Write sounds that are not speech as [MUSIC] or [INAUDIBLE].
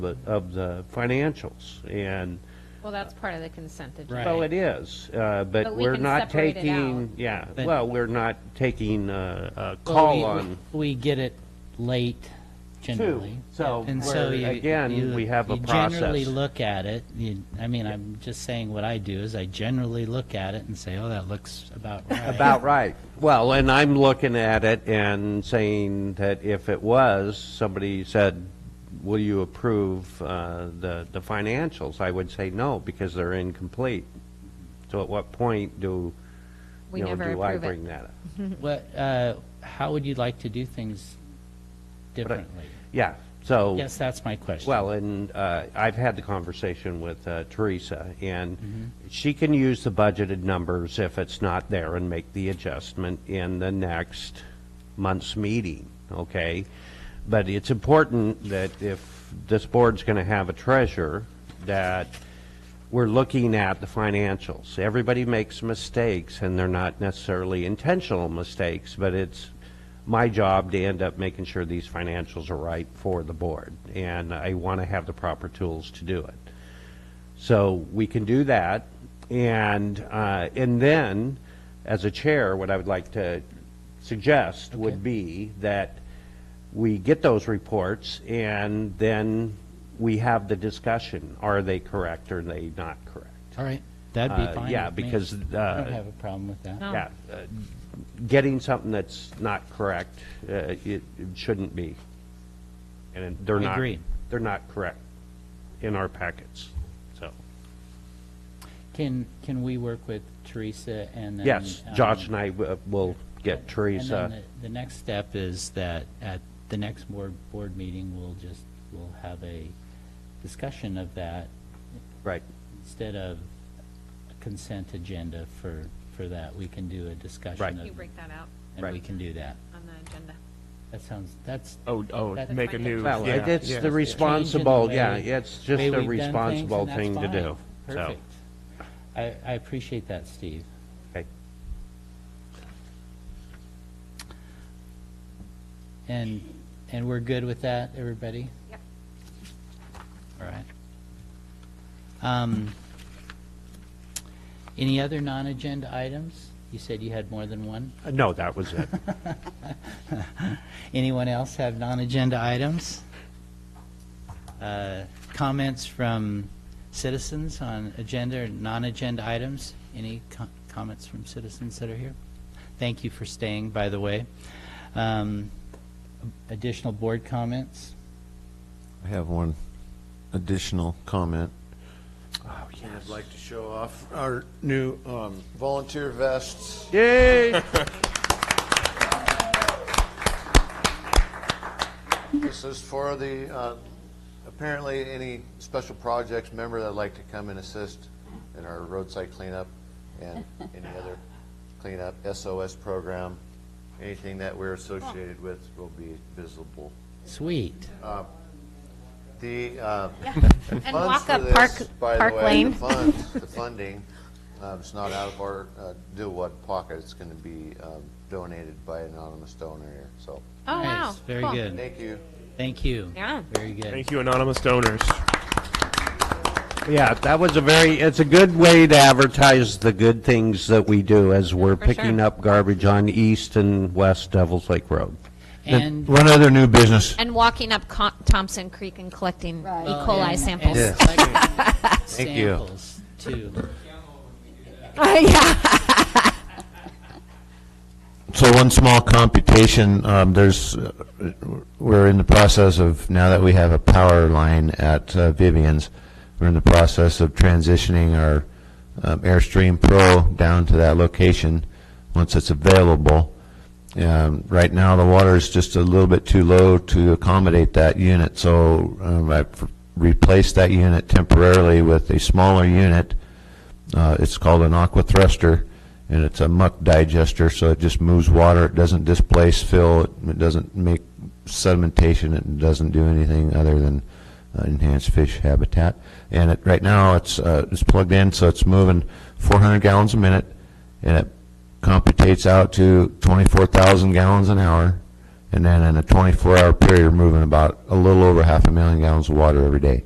the, of the financials, and, Well, that's part of the consent agenda. Right. well, it is, uh, but But we we're can not separate it taking, out. yeah, But- well, we're not taking uh, a, a Well, call we- on We get it late two. generally. So, And we're- so you- again, you- we have a You generally process. look at it, you, I mean, I'm just saying what I do is I generally look at it and say, oh, that looks [LAUGHS] about right. [LAUGHS] About right. Well, and I'm looking at it and saying that if it was, somebody said, will you approve uh, the, the financials? I would say no, because they're incomplete. So at what point do, We you know, never do I approve it. bring that up? [LAUGHS] What, uh, how would you like to do things differently? Yeah, so. Yes, that's my question. Well, and uh, I've had the conversation with uh, Teresa, and she can use the budgeted numbers if it's not there and make the adjustment in the next month's meeting, okay? But it's important that if this board's going to have a treasurer, that we're looking at the financials. Everybody makes mistakes, and they're not necessarily intentional mistakes, but it's my job to end up making sure these financials are right for the board, and I want to have the proper tools to do it. So we can do that, and, uh, and then, as a chair, what I would like to suggest would be that we get those reports, and then we have the discussion, are they correct, or are they not correct? All right, that'd Uh, be fine. yeah, with me. because, I uh, don't have a problem with that. No. Yeah, uh, getting something that's not correct, uh, it it shouldn't be. And they're I not, agree. they're not correct in our packets, so. Can, can we work with Teresa and then? Yes, um, Josh and I uh, will get And Teresa. then the, the next step is that at the next board, board meeting, we'll just, we'll have a discussion of that Right, instead of a consent agenda for, for that. We can do a Right. discussion You of, break that out and we can do that. on the agenda. That sounds, that's. Oh, oh, That's make a fine. new. well, yeah, it- it's yeah. the It's changing the responsible, way- yeah, it's just way a we've done things, and responsible that's thing to fine. do. so, Perfect. I, I appreciate that, Steve. okay. And, and we're good with that, everybody? Yep. All right. Um, Any other non-agenda items? You said you had more than one. Uh, No, that was [LAUGHS] it. Anyone else have non-agenda items? Uh, Comments from citizens on agenda or non-agenda items? Any co- comments from citizens that are here? Thank you for staying, by the way. Um, Additional board comments? I have one additional comment. Oh, I'd like to show off our new um, volunteer vests. Yay! [LAUGHS] This is for the, uh, apparently any special projects member that'd like to come and assist in our roadside cleanup and any other cleanup, SOS program, anything that we're associated with will be visible. Sweet. Oh, The uh, And funds walk for up Park, this, by Park the way, Lane. the funds, the funding, uh, it's not out of our uh, do what pocket, it's going to be um, donated by an anonymous donor here, so, Oh, wow. Nice, Very Cool. good. thank you. Thank you. Yeah. Very good. Thank you, anonymous donors. Yeah, that was a very, it's a good way to advertise the good things that we do as we're For sure. picking up garbage on East and West Devils Lake Road. And One other new business. And walking up Co- Thompson Creek and collecting E. Oh, coli samples. uh, And collect you. Samples, too. Yeah. So one small computation, um, there's, uh, we're in the process of, now that we have a power line at uh, Vivian's, we're in the process of transitioning our um, Airstream Pro down to that location, once it's available. Um, Right now, the water is just a little bit too low to accommodate that unit, so um, I've replaced that unit temporarily with a smaller unit, uh, It's called an aqua thruster, and it's a muck digester, so it just moves water, it doesn't displace fill, it- it doesn't make sedimentation, it doesn't do anything other than uh, enhance fish habitat. And it, right now, it's, uh, it's plugged in, so it's moving 400 gallons a minute, and it computates out to 24,000 gallons an hour, and then in a 24-hour period, we're moving about a little over half a million gallons of water every day.